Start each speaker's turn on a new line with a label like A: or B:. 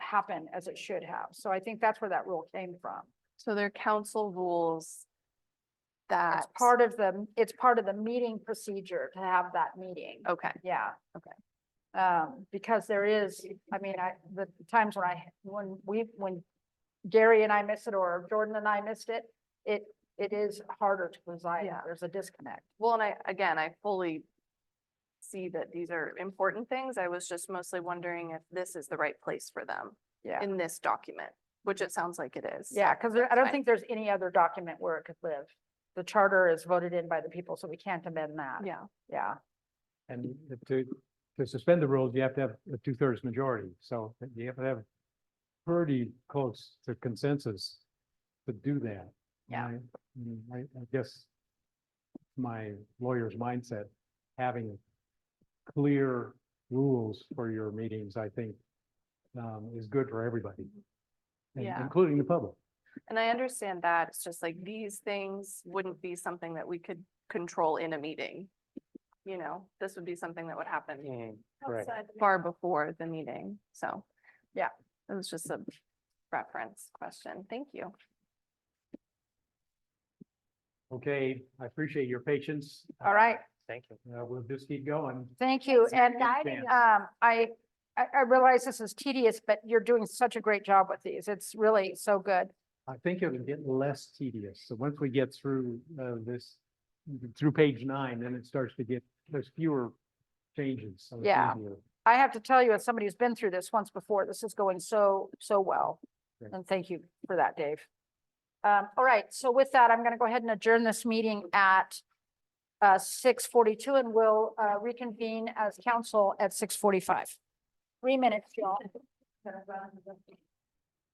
A: happen as it should have. So I think that's where that rule came from.
B: So there are council rules
A: It's
B: that.
A: part of the, it's part of the meeting procedure to have that meeting.
B: Okay,
A: Yeah.
B: Oh. Okay.
A: Um, because there is, I mean, I, the times when I, when we, when Gary and I miss it or Jordan and I missed it, it, it is harder to preside.
B: Yeah.
A: There's a disconnect.
B: well, and I, again, I fully see that these are important things. I was just mostly wondering if this is the right place for them
A: Yeah.
B: in this document, which it sounds like it is. so
A: Yeah, because I don't
B: fine.
A: think there's any other document where it could live. The charter is voted in by the people, so we can't amend that.
B: Yeah,
A: Yeah,
C: And to, to suspend the rules, you have to have a two thirds majority, so you have to have pretty close to consensus to do that.
A: Yeah.
C: And I- mm, I, I guess my lawyer's mindset, having clear rules for your meetings, I think, um, is good for everybody. and
B: Yeah.
C: Including the public.
B: and I understand that. It's just like these things wouldn't be something that we could control in a meeting. You know, this would be something that would happen
C: Correct.
B: far before the meeting, so.
A: Yeah.
B: It was just a reference question. Thank you.
C: Okay, I appreciate your patience.
A: all right.
D: Thank you.
C: Uh, we'll just keep going.
A: Thank you.
C: It's a
A: And
C: good
A: I,
C: chance.
A: um, I, I, I realize this is tedious, but you're doing such a great job with these. It's really so good.
C: I think it'll get less tedious. So once we get through uh, this, through page nine, then it starts to get, there's fewer changes. so it's
A: Yeah.
C: easier.
A: I have to tell you, as somebody who's been through this once before, this is going so, so well.
C: Great.
A: And thank you for that, Dave. Um, all right, so with that, I'm going to go ahead and adjourn this meeting at uh, six forty-two and we'll uh, reconvene as council at six forty-five. Three minutes, y'all.